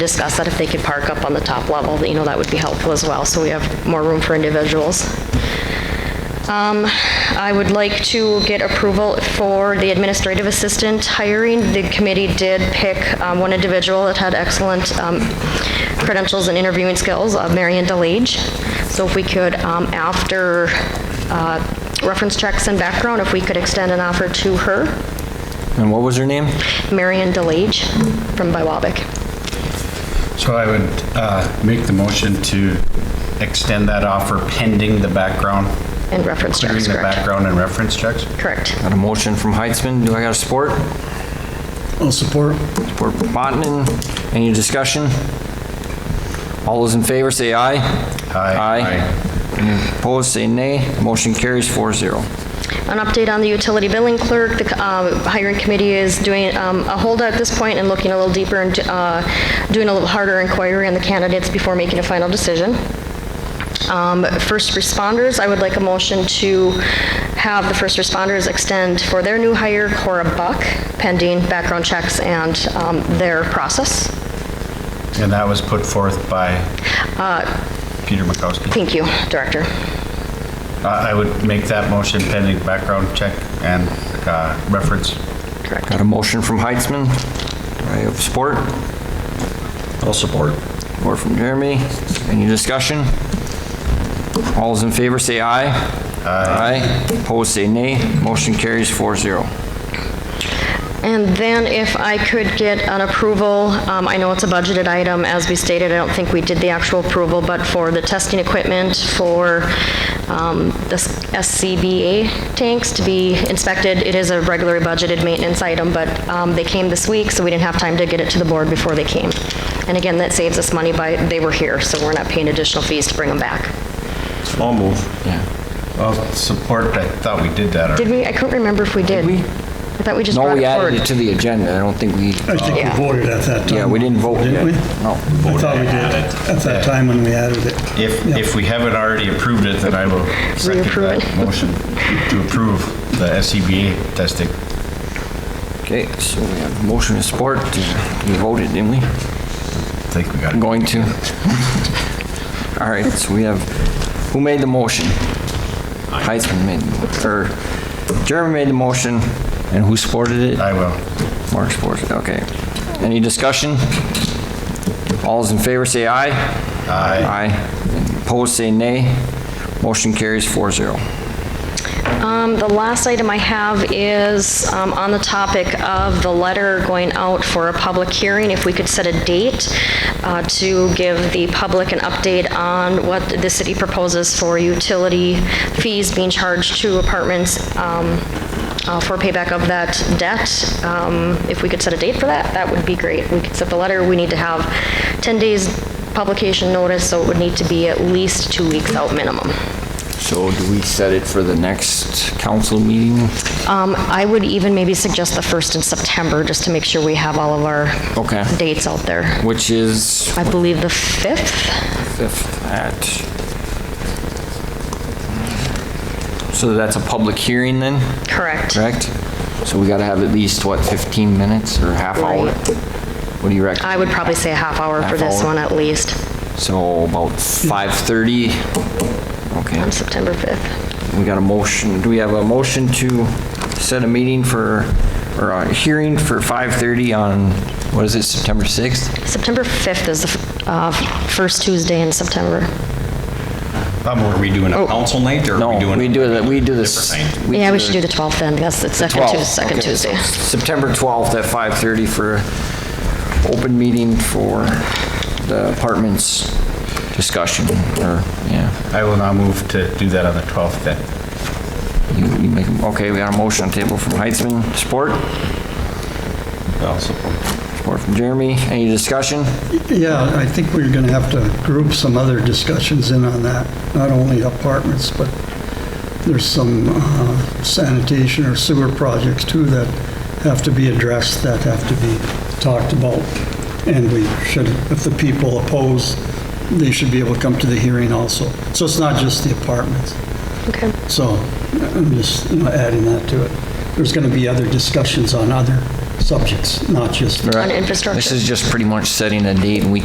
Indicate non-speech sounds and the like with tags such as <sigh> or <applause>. discussed that if they could park up on the top level, that, you know, that would be helpful as well, so we have more room for individuals. Um, I would like to get approval for the administrative assistant hiring. The committee did pick um, one individual that had excellent um, credentials and interviewing skills, uh, Marion DeLage. So if we could, um, after uh, reference checks and background, if we could extend an offer to her, And what was her name? Marion DeLage from Biwabic. So I would uh, make the motion to extend that offer pending the background, And reference clearing checks, the correct? background and reference checks. Correct. Got a motion from Heitzman. Do I got a support? I'll support. Support from Montanen. Any discussion? All those in favor say aye. Aye. Aye. Any opposed, say nay. Motion carries 4-0. An update on the utility billing clerk, the uh, hiring committee is doing um, a holdout at this point and looking a little deeper and uh, doing a little harder inquiry on the candidates before making a final decision. Um, First responders, I would like a motion to have the first responders extend for their new hire, Cora Buck, pending background checks and um, their process. And that was put forth by Peter Makowski. Uh, Thank you, Director. Uh, I would make that motion pending background check and uh, reference. Correct. Got a motion from Heitzman. Do I have support? I'll support. Support from Jeremy. Any discussion? All those in favor say aye. Aye. Opposed, say nay. Motion carries 4-0. And then if I could get an approval, um, I know it's a budgeted item, as we stated, I don't think we did the actual approval, but for the testing equipment for um, the SCBA tanks to be inspected, it is a regularly budgeted maintenance item, but um, they came this week, so we didn't have time to get it to the board before they came. And again, that saves us money by, they were here, so we're not paying additional fees to bring them back. I'll move. I'll support. I thought we did that. Did we, I couldn't remember if we did. we? I thought we just No, brought we it forward. added it to the agenda. I don't think we, I think we Yeah. voted at that time. yeah, we didn't vote yet. Didn't we? No. I thought we did, at that time when we added it. If, Yeah. if we haven't already approved it, then I will second Reapprove that it. motion to approve the SCBA testing. Okay, so we have motion and support. We voted, didn't we? I think we got it. Going to. <laughs> All right, so we have, who made the motion? Heitzman made, or Jeremy made the motion, and who supported it? I will. Mark supported, it, okay. Any discussion? All those in favor say aye. Aye. Aye. Opposed, say nay. Motion carries 4-0. Um, The last item I have is um, on the topic of the letter going out for a public hearing, if we could set a date uh, to give the public an update on what the city proposes for utility fees being charged to apartments um, uh, for payback of that debt. Um, If we could set a date for that, that would be great. We could set the letter, we need to have 10 days publication notice, so it would need to be at least two weeks out minimum. So do we set it for the next council meeting? Um, I would even maybe suggest the 1st in September, just to make sure we have all of our Okay. dates out there. Which is I believe the 5th? 5th at... So that's a public hearing then? Correct. correct? So we got to have at least, what, 15 minutes or half hour? Right. What do you reckon? I would probably say a half hour for Half this hour. one at least, So about 5:30? on Okay, Um, September 5th. we got a motion, do we have a motion to set a meeting for, or a hearing for 5:30 on, what is it, September 6th? September 5th is the uh, first Tuesday in September. Um, are we doing a council night or are we Oh. No, doing? we do that, we do this. Different night. Yeah, we should do the 12th then, because it's second 12th, Tuesday, second okay. Tuesday. September 12th at 5:30 for open meeting for the apartments discussion, or, yeah. I will now move to do that on the 12th then. You, you make, okay, we got a motion on the table from Heitzman, support, I'll support. support from Jeremy, any discussion? Yeah, I think we're going to have to group some other discussions in on that, not only apartments, but there's some uh, sanitation or sewer projects too that have to be addressed, that have to be talked about. And we should, if the people oppose, they should be able to come to the hearing also. So it's not just the apartments. Okay. So I'm just, you know, adding that to it. There's going to be other discussions on other subjects, not just Right. On infrastructure. This is just pretty much setting a date, and we